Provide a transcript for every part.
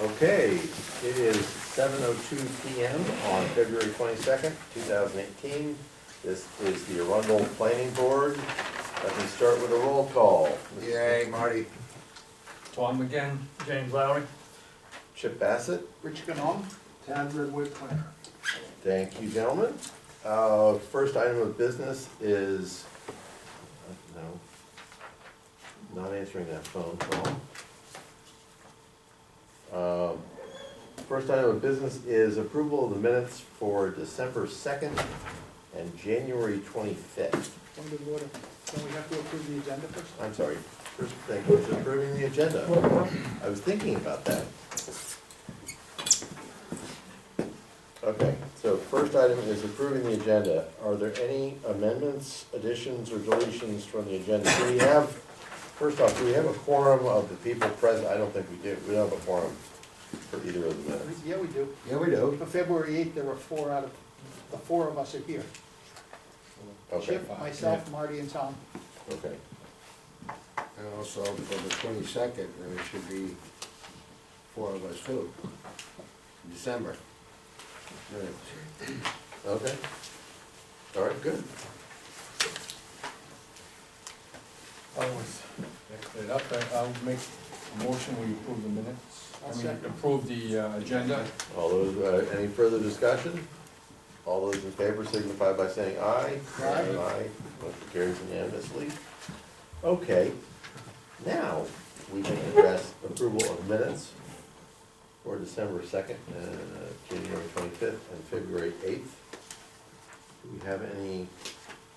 Okay, it is seven oh two PM on February twenty-second, two thousand eighteen. This is the Arundel Planning Board. Let me start with a roll call. Yay, Marty. Tom again. James Lowry. Chip Bassett, Rich Canong? Tad Redwood Planner. thank you, gentlemen. Uh, first item of business is, uh, no, not answering that phone call. Um, First item of business is approval of the minutes for December second and January twenty-fifth. From the water. Don't we have to approve the agenda first? I'm sorry, first thing was approving the agenda. I was thinking about that. Okay, so first item is approving the agenda. Are there any amendments, additions, or deletions from the agenda? Do we have, first off, do we have a quorum of the people present? I don't think we do. We don't have a quorum for either of the minutes. Yeah, we do. Yeah, we do. For February eighth, there were four out of, the four of us are here. Okay, Chip, myself, Marty, and Tom. okay. And also for the twenty-second, there should be four of us too. December. Minutes. Okay. All right, good. I was, it up, I- I'll make a motion, will you approve the minutes? I'll I mean, second. approve the uh, agenda. All those, uh, any further discussion? All those in favor signify by saying aye. Aye. motion carries unanimously. Okay, now, we can address approval of minutes for December second, uh, January twenty-fifth, and February eighth. Do we have any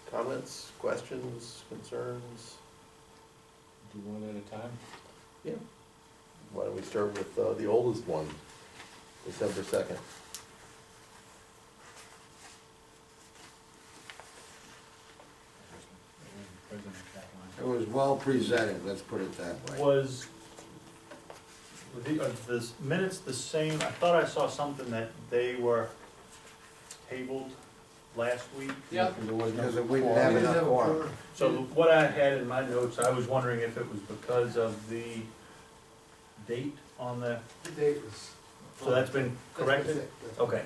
comments, questions, concerns? Do one at a time? Yeah. Why don't we start with, uh, the oldest one, December second? President Kaplan. It was well presented, let's put it that way. Was, were the, are the minutes the same? I thought I saw something that they were tabled last week. Yeah. Because there was no Because we didn't quorum. have enough quorum. So what I had in my notes, I was wondering if it was because of the date on the, The date was. so that's been corrected? Okay.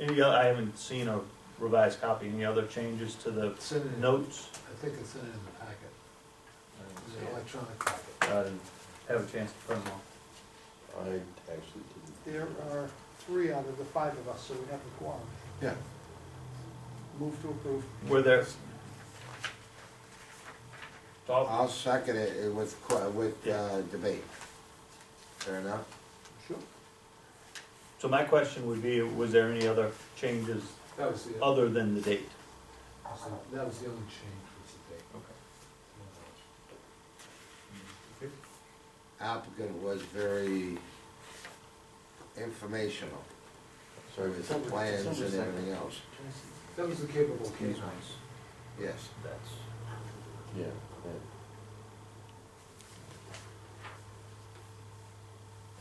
Any, oth- I haven't seen a revised copy. Any other changes to the It's in it. notes? I think it's in it in the packet, Uh, Yeah. electronic packet. Uh, Have a chance to print them off. I actually didn't. There are three out of the five of us, so we have the quorum. Yeah. Move to approve. Were there? Tom? I'll second it uh, with, que- with, uh, debate. Fair enough? Sure. So my question would be, was there any other changes That was the, uh, that other than the date? was the only change was the date. Applicant was very informational Sorry, with the plans and everything else. That was the capable case. Yes. That's. Yeah.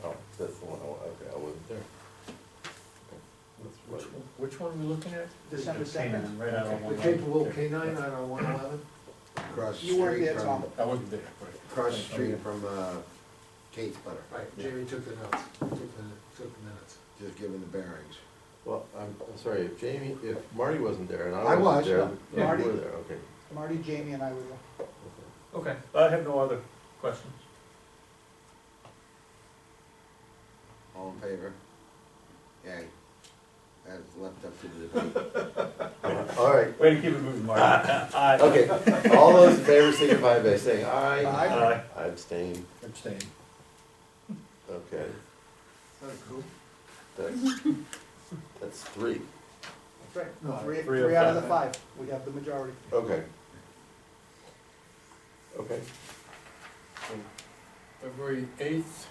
Oh, that's the one, oh, okay, I wasn't there. Which one- Which one are we looking at? December Just came second. in Right out on The one. capable canine out on one eleven? Across the You weren't street there, from, Tom. I wasn't there, but. across the street from, uh, Kate's Butter, Right, Jamie took the notes, took the, took the minutes. just giving the bearings. Well, I'm, I'm sorry, if Jamie, if Marty wasn't there and I I wasn't was, there. yeah. you were Marty- there, okay. Marty, Jamie, and I were there. okay. Okay, I have no other questions. All in favor? Yay. That's left up to the debate. All right, Way to keep it moving, Marty. Aye. okay, all those in favor signify by saying aye. Aye. I abstain, Abstain. okay, Isn't that cool? that's, that's three, No, I- Three, Three of three out of the five. five, we have the majority. okay. Okay, February eighth,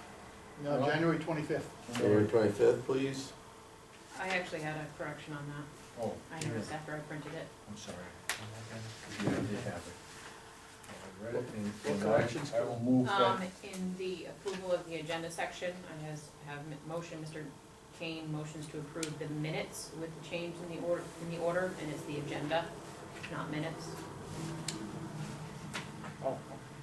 No, Well- January twenty-fifth. January twenty-fifth, please. I actually had a correction on that. oh, I noticed after I printed it. I'm sorry. Yeah, they have it. I read it and- What and I- corrections? I will move Um, that. in the approval of the agenda section, I has, have m- motion, Mr. Kane motions to approve the minutes with the change in the order, in the order, and it's the agenda, not minutes.